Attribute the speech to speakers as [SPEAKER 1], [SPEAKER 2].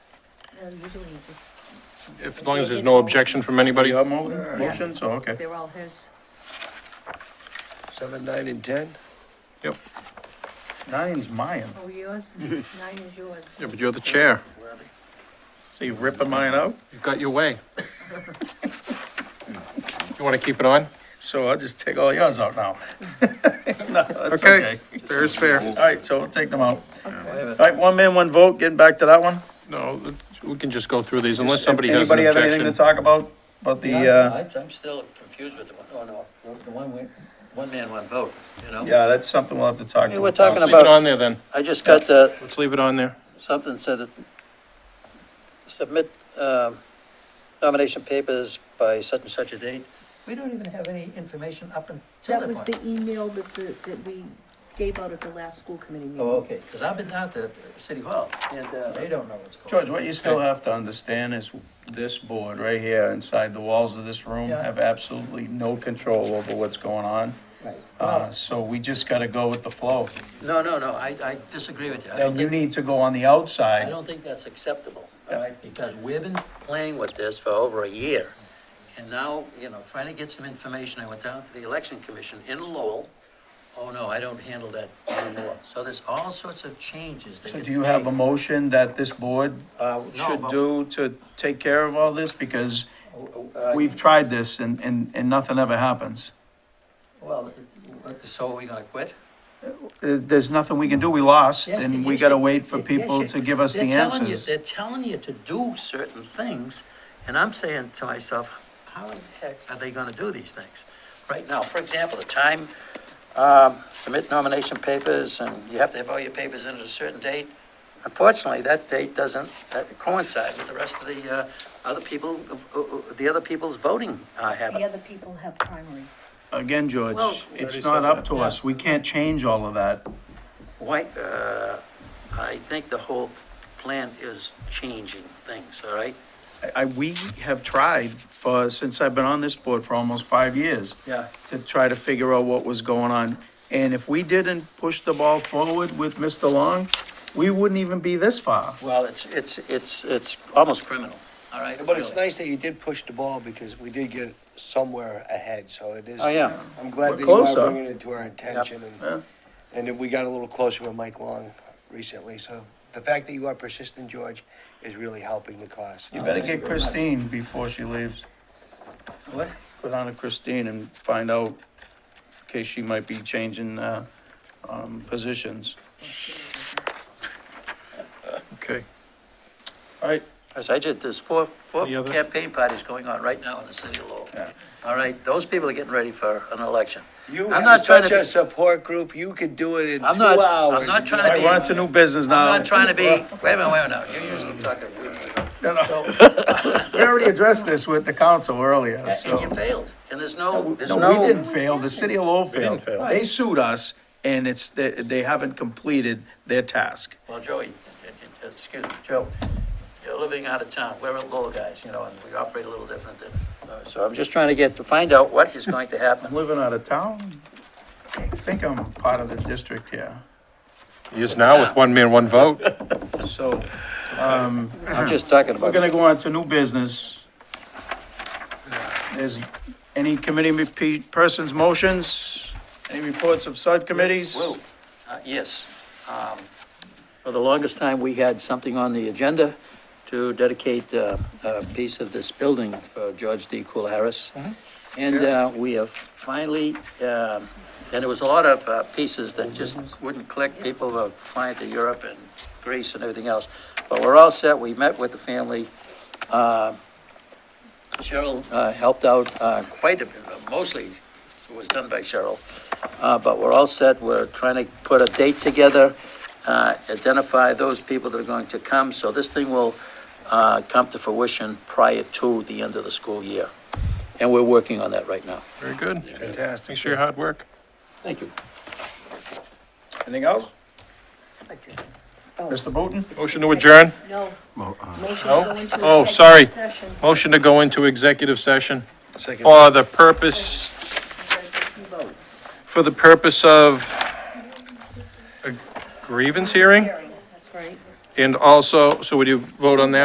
[SPEAKER 1] No, Uh, usually you just,
[SPEAKER 2] If, as long as there's no objection from anybody.
[SPEAKER 3] Anybody have mo- motions? Oh, okay.
[SPEAKER 1] they're all his.
[SPEAKER 4] Seven, nine, and ten?
[SPEAKER 2] Yep.
[SPEAKER 3] Nine's mine.
[SPEAKER 1] Oh, yours? Nine is yours.
[SPEAKER 2] Yeah, but you're the chair.
[SPEAKER 3] So you ripping mine out?
[SPEAKER 2] You've got your way. You want to keep it on?
[SPEAKER 3] So I'll just take all yours out now. No, that's okay.
[SPEAKER 2] Okay, fair is fair.
[SPEAKER 3] All right, so we'll take them out. All right, one man, one vote, getting back to that one.
[SPEAKER 2] No, we can just go through these unless somebody has an
[SPEAKER 3] Anybody have anything to
[SPEAKER 2] objection.
[SPEAKER 3] talk about, about the, uh,
[SPEAKER 4] I'm still confused with the one, oh, no, the one, we- one man, one vote, you know?
[SPEAKER 3] yeah, that's something we'll have to talk
[SPEAKER 4] Hey, we're
[SPEAKER 3] to.
[SPEAKER 4] talking
[SPEAKER 2] Let's leave it
[SPEAKER 4] about,
[SPEAKER 2] on there then.
[SPEAKER 4] I just got the,
[SPEAKER 2] Let's leave it on there.
[SPEAKER 4] something said that submit um, nomination papers by such and such a date. We don't even have any information up until
[SPEAKER 1] That
[SPEAKER 4] that
[SPEAKER 1] was
[SPEAKER 4] point.
[SPEAKER 1] the email that the, that we gave out at the last school committee meeting.
[SPEAKER 4] Oh, okay, because I've been down to City Hall, and uh, they don't know what's going on.
[SPEAKER 3] George, what you still have to understand is this board right here, inside the walls of this room,
[SPEAKER 4] Yeah.
[SPEAKER 3] have absolutely no control over what's going on. Uh, so we just gotta go with the flow.
[SPEAKER 4] No, no, no, I, I disagree with you. I don't
[SPEAKER 3] And you
[SPEAKER 4] think,
[SPEAKER 3] need to go on the
[SPEAKER 4] I
[SPEAKER 3] outside.
[SPEAKER 4] don't think that's acceptable, all right? Because we've been playing with this for over a year. And now, you know, trying to get some information, I went down to the election commission in Lowell. Oh, no, I don't handle that anymore. So there's all sorts of changes that
[SPEAKER 3] So
[SPEAKER 4] get
[SPEAKER 3] do you have a
[SPEAKER 4] made.
[SPEAKER 3] motion that this board
[SPEAKER 4] Uh, no,
[SPEAKER 3] should
[SPEAKER 4] but-
[SPEAKER 3] do to take care of all this? Because
[SPEAKER 4] Uh,
[SPEAKER 3] we've tried this and, and, and nothing ever happens.
[SPEAKER 4] Well, uh, so are we gonna quit?
[SPEAKER 3] Uh, There's nothing we can do. We lost
[SPEAKER 4] Yes,
[SPEAKER 3] and we
[SPEAKER 4] yes,
[SPEAKER 3] gotta
[SPEAKER 4] they-
[SPEAKER 3] wait for
[SPEAKER 4] yes,
[SPEAKER 3] people
[SPEAKER 4] yes,
[SPEAKER 3] to give us the
[SPEAKER 4] they're telling you-
[SPEAKER 3] answers.
[SPEAKER 4] They're telling you to do certain things, and I'm saying to myself, how in the heck are they gonna do these things? Right now, for example, the time, um, submit nomination papers, and you have to have all your papers in at a certain date. Unfortunately, that date doesn't uh, coincide with the rest of the, uh, other people, uh, uh, the other people's voting uh,
[SPEAKER 1] The
[SPEAKER 4] habit.
[SPEAKER 1] other people have primaries.
[SPEAKER 3] Again, George,
[SPEAKER 4] Well-
[SPEAKER 3] it's not up to us. We can't change all of that.
[SPEAKER 4] Why, uh, I think the whole plan is changing things, all right?
[SPEAKER 3] I- I, we have tried for, since I've been on this board for almost five years.
[SPEAKER 4] Yeah.
[SPEAKER 3] To try to figure out what was going on. And if we didn't push the ball forward with Mr. Long, we wouldn't even be this far.
[SPEAKER 4] Well, it's, it's, it's, it's almost criminal, all right?
[SPEAKER 5] But it's
[SPEAKER 4] really.
[SPEAKER 5] nice that you did push the ball because we did get somewhere ahead, so it is.
[SPEAKER 4] Oh, yeah.
[SPEAKER 5] I'm glad
[SPEAKER 3] We're
[SPEAKER 5] that you are
[SPEAKER 3] closer.
[SPEAKER 5] bringing it to our attention and, and that we got a little closer with Mike Long recently, so the fact that you are persistent, George, is really helping the cause.
[SPEAKER 3] You better get Christine before she leaves.
[SPEAKER 4] What?
[SPEAKER 3] Go down to Christine and find out, in case she might be changing, uh, um, positions.
[SPEAKER 2] Okay.
[SPEAKER 3] All right,
[SPEAKER 4] As I did, there's four, four
[SPEAKER 2] Any other?
[SPEAKER 4] campaign parties going on right now in the city of Lowell.
[SPEAKER 3] Yeah.
[SPEAKER 4] All right, those people are getting ready for an election.
[SPEAKER 5] You
[SPEAKER 4] I'm not
[SPEAKER 5] have
[SPEAKER 4] trying to
[SPEAKER 5] such
[SPEAKER 4] be-
[SPEAKER 5] a support group, you could do it in two
[SPEAKER 4] I'm not- I'm
[SPEAKER 5] hours.
[SPEAKER 4] not trying to
[SPEAKER 3] I want to new business
[SPEAKER 4] I'm
[SPEAKER 3] now.
[SPEAKER 4] not trying to be, wait a minute, wait a minute, you usually talk a week ago.
[SPEAKER 3] No, no. We already addressed this with the council earlier, so.
[SPEAKER 4] And you failed, and there's no, there's
[SPEAKER 3] No, we didn't
[SPEAKER 4] no,
[SPEAKER 3] fail, the city of Lowell failed.
[SPEAKER 2] didn't fail.
[SPEAKER 3] They sued us, and it's, they, they haven't completed their task.
[SPEAKER 4] well, Joey, uh, uh, excuse me, Joe, you're living out of town, we're Lowell guys, you know, and we operate a little different than, uh, so I'm just trying to get, to find out what is going to
[SPEAKER 3] I'm
[SPEAKER 4] happen.
[SPEAKER 3] living out of town, I think I'm part of the district here,
[SPEAKER 2] He is now with one man, one vote.
[SPEAKER 3] so
[SPEAKER 4] I'm just talking
[SPEAKER 3] we're
[SPEAKER 4] about.
[SPEAKER 3] gonna go on to new business. There's any committee me- pe- persons' motions, any reports of subcommittees?
[SPEAKER 4] Lou, uh, yes. um, For the longest time, we had something on the agenda to dedicate uh, a piece of this building for George D. Cool Harris. And uh, we have finally, um, and it was a lot of uh, pieces that just wouldn't click. People were flying to Europe and Greece and everything else. But we're all set. We met with the family. Uh, Cheryl uh, helped out uh, quite a bit, mostly it was done by Cheryl. Uh, But we're all set, we're trying to put a date together, uh, identify those people that are going to come, so this thing will uh, come to fruition prior to the end of the school year. And we're working on that right now.
[SPEAKER 2] Very good.
[SPEAKER 5] Fantastic.
[SPEAKER 2] Thanks for your hard work.
[SPEAKER 4] Thank you.
[SPEAKER 3] Anything else?
[SPEAKER 1] Adjourned.
[SPEAKER 3] Mr. Booton?
[SPEAKER 2] Motion to adjourn?
[SPEAKER 1] No. Motion to
[SPEAKER 2] no?
[SPEAKER 1] go into
[SPEAKER 2] Oh,
[SPEAKER 1] executive
[SPEAKER 2] sorry.
[SPEAKER 1] session.
[SPEAKER 2] Motion to go into executive session for the purpose
[SPEAKER 1] Two votes.
[SPEAKER 2] for the purpose of a grievance hearing?
[SPEAKER 1] Hearing, That's right.
[SPEAKER 2] And also, so would you vote on that?